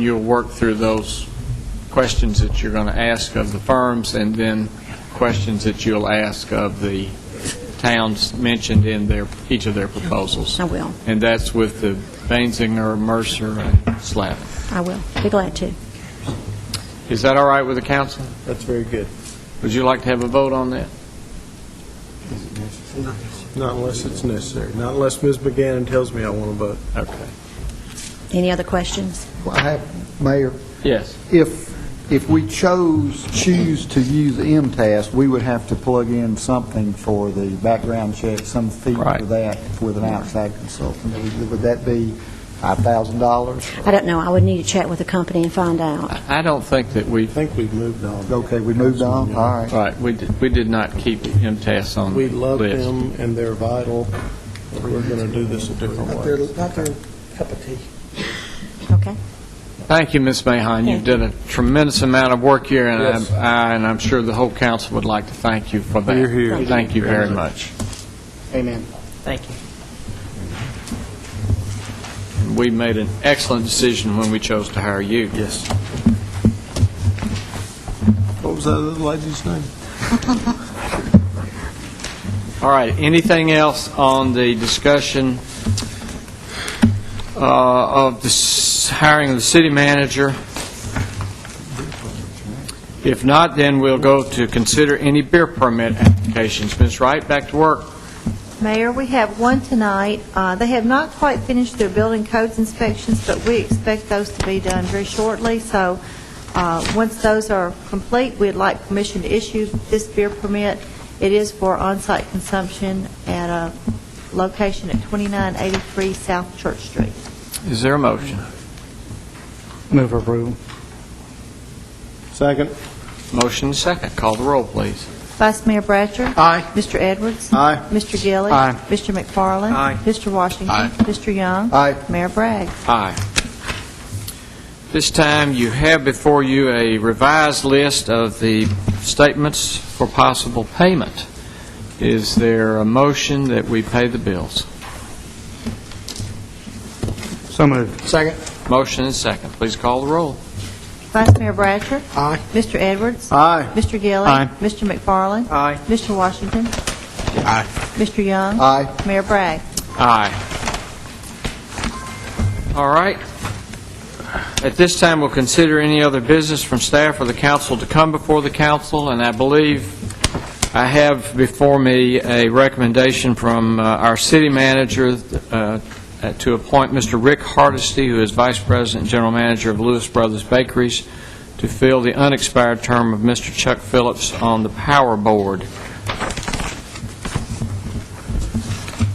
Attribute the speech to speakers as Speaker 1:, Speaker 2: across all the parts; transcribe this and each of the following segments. Speaker 1: You'll work through those questions that you're going to ask of the firms, and then questions that you'll ask of the towns mentioned in their, each of their proposals.
Speaker 2: I will.
Speaker 1: And that's with the Banzinger, Mercer, and Slavin.
Speaker 2: I will. Be glad to.
Speaker 1: Is that all right with the council?
Speaker 3: That's very good.
Speaker 1: Would you like to have a vote on that?
Speaker 3: Not unless it's necessary. Not unless Ms. McGann tells me I want to vote.
Speaker 1: Okay.
Speaker 2: Any other questions?
Speaker 4: Well, I have, Mayor,
Speaker 1: Yes.
Speaker 4: if, if we chose, choose to use MTS, we would have to plug in something for the background check, some fee
Speaker 1: Right.
Speaker 4: for that with an outside consultant. Would would that be $5,000?
Speaker 2: I don't know. I would need to chat with the company and find out.
Speaker 1: I I don't think that we,
Speaker 3: I think we've moved on.
Speaker 4: Okay, we moved on, all right.
Speaker 1: right, we did, we did not keep MTS on the
Speaker 3: We
Speaker 1: list.
Speaker 3: love them and they're vital. but We're going to do this a different
Speaker 5: Not
Speaker 3: way.
Speaker 5: their, not their cup of tea.
Speaker 2: Okay?
Speaker 1: Thank you, Ms. Mahon. You did a tremendous amount of work here, and I'm- I- and I'm sure the whole council would like to thank you for that.
Speaker 3: You're here.
Speaker 2: Thank you.
Speaker 1: Thank you very much.
Speaker 4: Amen.
Speaker 5: Thank you.
Speaker 1: We made an excellent decision when we chose to hire you.
Speaker 3: Yes. What was that other lady's name?
Speaker 1: All right, anything else on the discussion uh, of the s- hiring of the city manager? If not, then we'll go to consider any beer permit applications. Ms. Wright, back to work.
Speaker 6: Mayor, we have one tonight. Uh, They have not quite finished their building codes inspections, but we expect those to be done very shortly. So uh, once those are complete, we'd like permission to issue this beer permit. It is for on-site consumption at a location at 2983 South Church Street.
Speaker 1: Is there a motion?
Speaker 4: Move approval.
Speaker 3: Second?
Speaker 1: Motion second. Call the roll, please.
Speaker 6: Vice Mayor Bratcher.
Speaker 3: Aye.
Speaker 6: Mr. Edwards.
Speaker 3: Aye.
Speaker 6: Mr. Gillis.
Speaker 1: Aye.
Speaker 6: Mr. McFarland.
Speaker 3: Aye.
Speaker 6: Mr. Washington.
Speaker 1: Aye.
Speaker 6: Mr. Young.
Speaker 4: Aye.
Speaker 6: Mayor Bragg.
Speaker 1: Aye. This time, you have before you a revised list of the statements for possible payment. Is there a motion that we pay the bills?
Speaker 4: So moved.
Speaker 3: Second?
Speaker 1: Motion and second. Please call the roll.
Speaker 6: Vice Mayor Bratcher.
Speaker 3: Aye.
Speaker 6: Mr. Edwards.
Speaker 3: Aye.
Speaker 6: Mr. Gilly.
Speaker 4: Aye.
Speaker 6: Mr. McFarland.
Speaker 3: Aye.
Speaker 6: Mr. Washington.
Speaker 3: Aye.
Speaker 6: Mr. Young.
Speaker 4: Aye.
Speaker 6: Mayor Bragg.
Speaker 1: Aye. All right. At this time, we'll consider any other business from staff or the council to come before the council, and I believe I have before me a recommendation from uh, our city manager uh, to appoint Mr. Rick Hardesty, who is Vice President and General Manager of Lewis Brothers Bakeries, to fill the unexpired term of Mr. Chuck Phillips on the Power Board.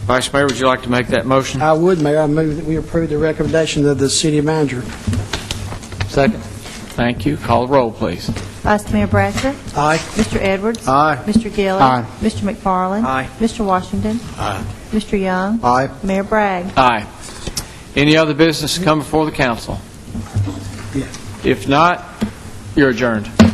Speaker 1: Vice Mayor, would you like to make that motion?
Speaker 5: I would, Mayor, I move that we approve the recommendation of the city manager.
Speaker 1: Second. Thank you. Call the roll, please.
Speaker 6: Vice Mayor Bratcher.
Speaker 5: Aye.
Speaker 6: Mr. Edwards.
Speaker 3: Aye.
Speaker 6: Mr. Gilly.
Speaker 4: Aye.
Speaker 6: Mr. McFarland.
Speaker 3: Aye.
Speaker 6: Mr. Washington.
Speaker 3: Aye.
Speaker 6: Mr. Young.
Speaker 4: Aye.
Speaker 6: Mayor Bragg.
Speaker 1: Aye. Any other business to come before the council? If not, you're adjourned.